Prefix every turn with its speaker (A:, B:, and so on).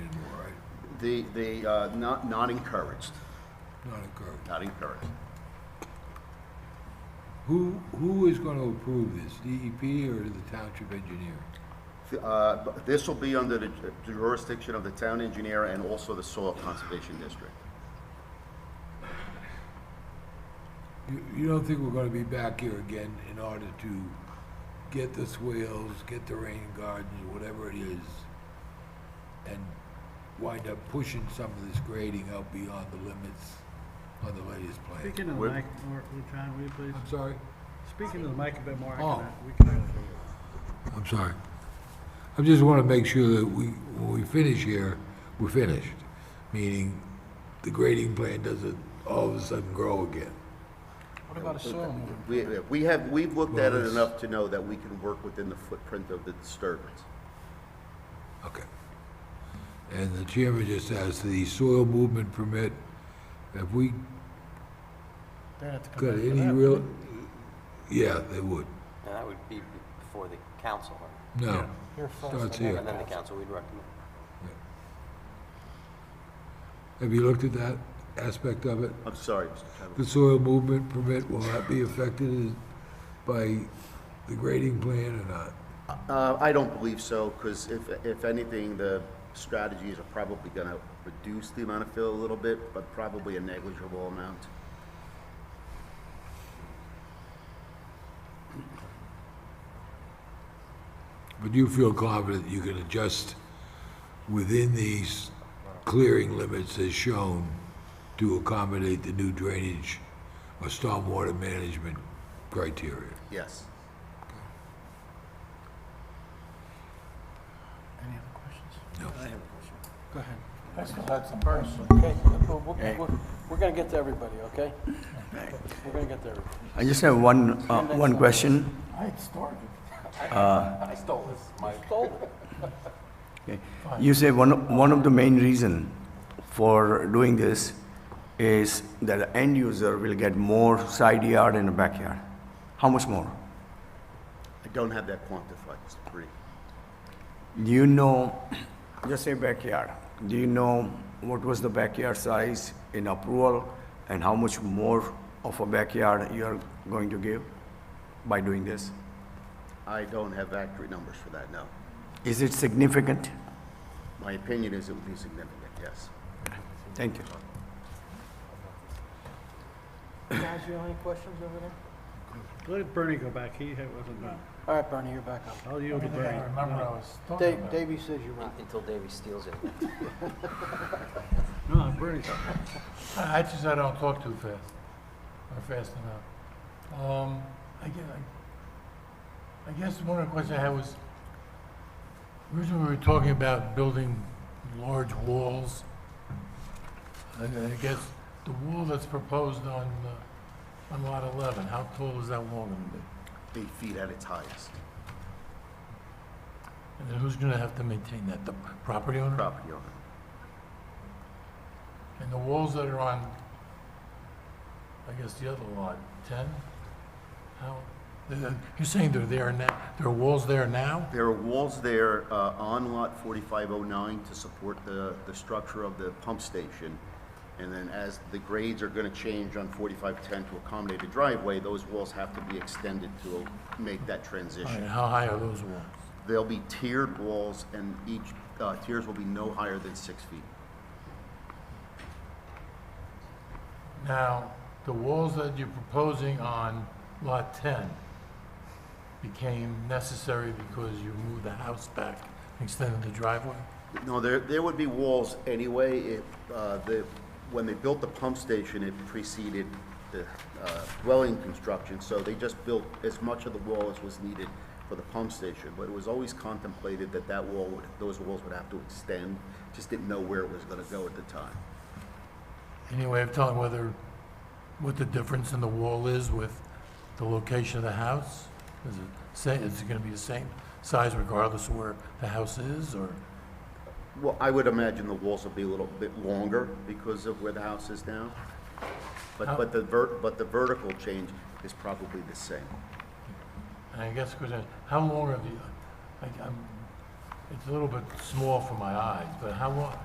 A: The, the, uh, not, not encouraged,
B: Not encouraged.
A: not encouraged.
B: Who, who is going to approve this, DEP or the township engineer?
A: Uh, but This will be under the jurisdiction of the town engineer and also the soil conservation district.
B: You, you don't think we're going to be back here again in order to get the swales, get the rain gardens, whatever it is, and wind up pushing some of this grading out beyond the limits on the latest plan?
C: Speaking of the
A: We're-
C: mic, more, John, will you please,
B: I'm sorry?
C: speaking to the mic a bit more, I
B: Oh.
C: cannot- we cannot hear you.
B: I'm sorry. I just want to make sure that we, when we finish here, we're finished. Meaning, the grading plan doesn't all of a sudden grow again.
C: What about a soil move?
A: We, we have, we've looked at it
B: Well, it's-
A: enough to know that we can work within the footprint of the disturbance.
B: Okay. And the chairman just asked, the soil movement permit, have we
C: They have to come
B: got
C: back to
B: any
C: that.
B: real? Yeah, they would.
D: And that would be before the council, right?
B: No.
C: Here first,
B: Starts
C: and
B: here.
D: and then the council, we'd recommend.
B: Have you looked at that aspect of it?
A: I'm sorry, Mr. Chadwick.
B: The soil movement permit, will that be affected by the grading plan or not?
A: Uh, I don't believe so, because if, if anything, the strategies are probably gonna reduce the amount of fill a little bit, but probably a negligible amount.
B: But you feel confident you can adjust within these clearing limits as shown to accommodate the new drainage or stormwater management criteria?
A: Yes.
C: Any other questions?
B: No.
C: Go ahead.
E: Okay, we're, we're, we're gonna get to everybody, okay? We're gonna get to everybody.
F: I just have one, uh, one question.
E: You stole it.
F: Okay. You say one, of- one of the main reason for doing this is that the end user will get more side yard and backyard. How much more?
A: I don't have that quantified, Mr. Parikh.
F: Do you know, just say backyard, do you know what was the backyard size in approval and how much more of a backyard you are going to give by doing this?
A: I don't have accurate numbers for that, no.
F: Is it significant?
A: My opinion is it would be significant, yes.
F: Thank you.
E: Guys, you have any questions over there?
C: Let Bernie go back, he had- wasn't done.
E: All right, Bernie, you're back up.
C: I'll yield to Bernie. No,
E: Dave, Davey says you're up.
D: Until Davey steals it.
C: No, Bernie's up.
G: I I just, I don't talk too fast, or fast enough. Um, I guess, I guess one of the questions I had was, originally we were talking about building large walls. And I guess the wall that's proposed on, uh, on lot 11, how tall is that wall gonna be?
A: Eight feet at its highest,
G: And then who's gonna have to maintain that, the property owner?
A: property owner.
G: And the walls that are on, I guess the other lot, 10? How, they're- you're saying they're there now, there are walls there now?
A: There are walls there uh, on Lot 4509 to support the, the structure of the pump station. And then as the grades are going to change on 4510 to accommodate the driveway, those walls have to be extended to make that
G: All right,
A: transition.
G: how high are those walls?
A: There'll be tiered walls, and each, uh, tiers will be no higher than six feet.
G: Now, the walls that you're proposing on Lot 10 became necessary because you moved the house back, extended the driveway?
A: No, there, there would be walls anyway, if, uh, the, when they built the pump station, it preceded the, uh, dwelling construction, so they just built as much of the wall as was needed for the pump station, but it was always contemplated that that wall would, those walls would have to extend, just didn't know where it was gonna go at the time.
G: Any way of telling whether, what the difference in the wall is with the location of the house? Is it, say, is it gonna be the same size regardless of where the house is, or?
A: Well, I would imagine the walls will be a little bit longer because of where the house is now, but, but the ver, but the vertical change is probably the same.
G: And I guess, because, how long are the, I, I'm, it's a little bit small for my eyes, but how long,